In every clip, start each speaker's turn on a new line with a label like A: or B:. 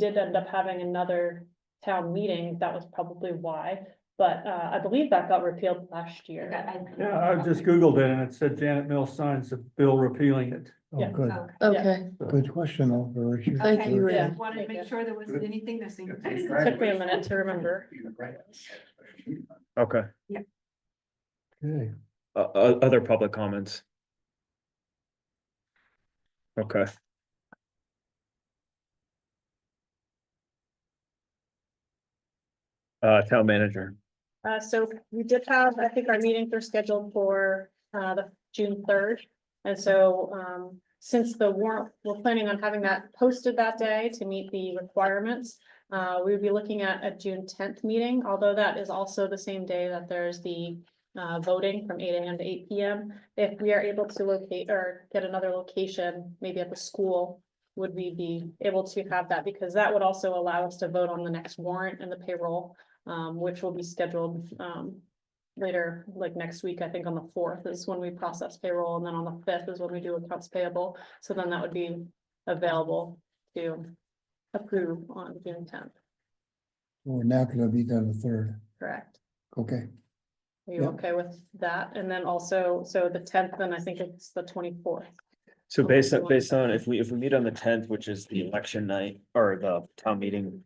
A: did end up having another town meeting, that was probably why. But uh, I believe that got repealed last year.
B: Yeah, I just Googled it and it said Janet Mills signs the bill repealing it.
C: Oh,
A: Yeah.
C: good,
D: Okay.
E: Okay,
C: good question, Oliver. You-
E: Thank
D: Okay,
E: you,
D: just
E: Ray.
D: Wanted to make sure there wasn't anything missing.
A: Took me a minute to remember.
F: Okay,
C: Okay,
F: uh, uh, other public comments? Okay. Uh, town manager,
A: Uh, so we did have, I think our meetings are scheduled for, uh, the June third. And so, um, since the warrant, we're planning on having that posted that day to meet the requirements. Uh, we would be looking at a June tenth meeting, although that is also the same day that there's the, uh, voting from eight AM to eight PM. If we are able to locate or get another location, maybe at the school, would we be able to have that? Because that would also allow us to vote on the next warrant and the payroll um, which will be scheduled, um, later, like next week, I think on the fourth is when we process payroll, and then on the fifth is when we do accounts payable. So then that would be available to approve on June tenth,
C: we're not gonna be done the third,
A: correct?
C: okay,
A: Are you
C: Yeah.
A: okay with that? And then also, so the tenth, then I think it's the twenty-fourth.
F: so
A: Okay,
F: based
A: so
F: on,
A: what-
F: based on, if we, if we meet on the tenth, which is the election night, or the town meeting.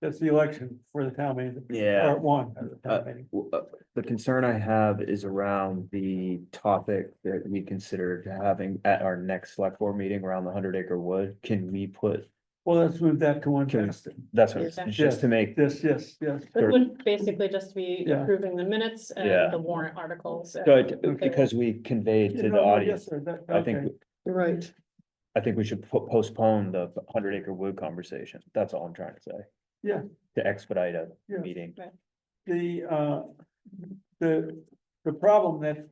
B: That's the election for the town meeting.
F: Yeah,
B: Part one of the town meeting.
F: uh, w- uh, the concern I have is around the topic that we considered having at our next select board meeting around the hundred acre wood. Can we put,
B: Well, let's move that to one
F: Can-
B: test.
F: that's what,
A: Yeah.
F: just to make
B: Yes, yes, yes.
A: It
F: Sure.
A: would basically just be
B: Yeah.
A: approving the minutes
F: Yeah.
A: and the warrant articles. and-
F: Good, uh, because we conveyed to the
B: No, no,
F: audience,
B: yes, sir, that-
F: I think,
B: okay.
E: right.
F: I think we should po- postpone the hundred acre wood conversation, that's all I'm trying to say.
B: Yeah.
F: To expedite a
B: Yeah.
F: meeting,
B: The, uh, the, the problem that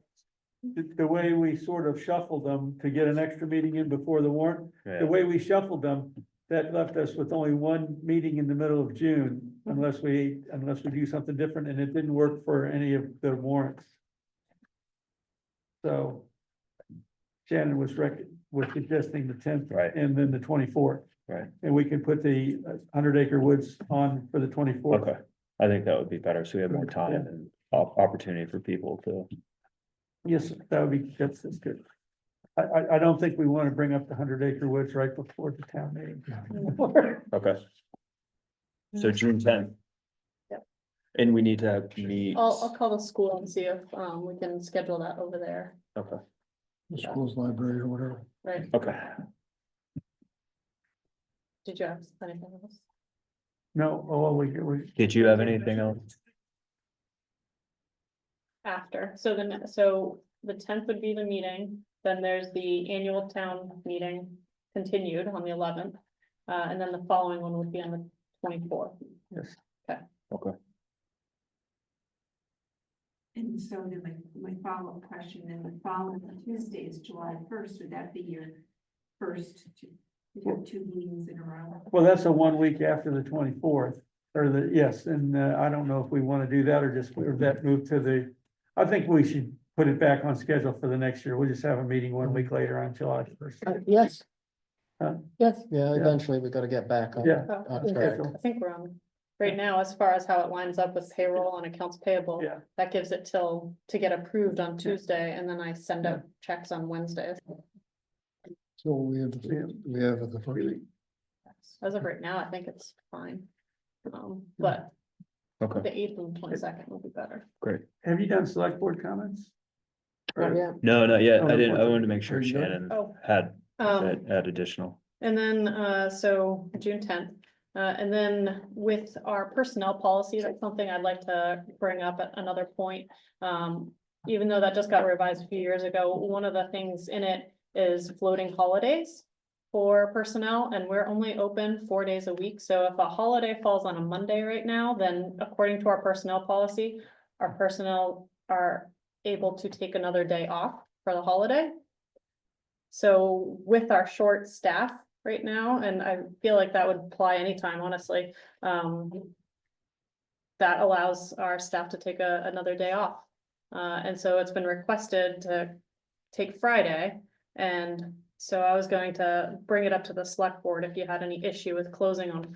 B: the, the way we sort of shuffled them to get an extra meeting in before the warrant,
F: yeah,
B: the way we shuffled them, that left us with only one meeting in the middle of June unless we, unless we do something different, and it didn't work for any of the warrants. So Shannon was rec, was suggesting the tenth
F: Right.
B: and then the twenty-fourth.
F: Right.
B: And we can put the uh, Hundred Acre Woods on for the twenty-fourth.
F: okay, I think that would be better, so we have more time and op- opportunity for people to.
B: Yes, sir, that would be, that's, that's good. I, I, I don't think we want to bring up the Hundred Acre Woods right before the town meeting.
F: Okay. So June
A: Mm-hmm.
F: tenth.
A: Yep. Oh,
F: And we need to meet,
A: I'll, I'll call the school and see if, um, we can schedule that over there,
F: okay,
C: the school's library or whatever.
A: right?
F: okay,
A: Did you have anything else?
B: No, oh, we, we,
F: did you have anything else?
A: After, so then, so the tenth would be the meeting, then there's the annual town meeting continued on the eleventh. Uh, and then the following one would be on the twenty-fourth.
B: yes.
D: And so then my, my follow-up question, then the following Tuesday is July first, would that be your first two, you have two meetings in a row?
B: Well, that's a one week after the twenty-fourth, or the, yes, and uh, I don't know if we want to do that or just, or that move to the. I think we should put it back on schedule for the next year. We'll just have a meeting one week later on July first.
E: Uh, Yes.
B: Huh?
E: Yes,
C: Yeah,
B: eventually
C: we gotta get back
B: Yeah.
A: I
C: That's
E: correct.
C: right.
A: think we're on, right now, as far as how it lines up with payroll and accounts payable.
B: Yeah.
A: That gives it till, to get approved on Tuesday, and then I send out checks on Wednesdays.
C: So we have, we have the first,
A: As of right now, I think it's fine. Um, but
F: Okay.
A: the eighth and twenty-second would be better.
B: Have you done select board comments? Or-
E: yeah,
F: No, not yet,
B: Oh,
F: I didn't, I
B: okay.
F: wanted to make sure
B: Are you done?
F: Shannon
A: Oh,
F: had,
A: um.
F: had had additional.
A: And then, uh, so June tenth, uh, and then with our personnel policy, that's something I'd like to bring up at another point. Um, even though that just got revised a few years ago, one of the things in it is floating holidays for personnel, and we're only open four days a week, so if a holiday falls on a Monday right now, then according to our personnel policy, our personnel are able to take another day off for the holiday. So with our short staff right now, and I feel like that would apply anytime, honestly, um. That allows our staff to take a, another day off. Uh, and so it's been requested to take Friday and So I was going to bring it up to the select board if you had any issue with closing on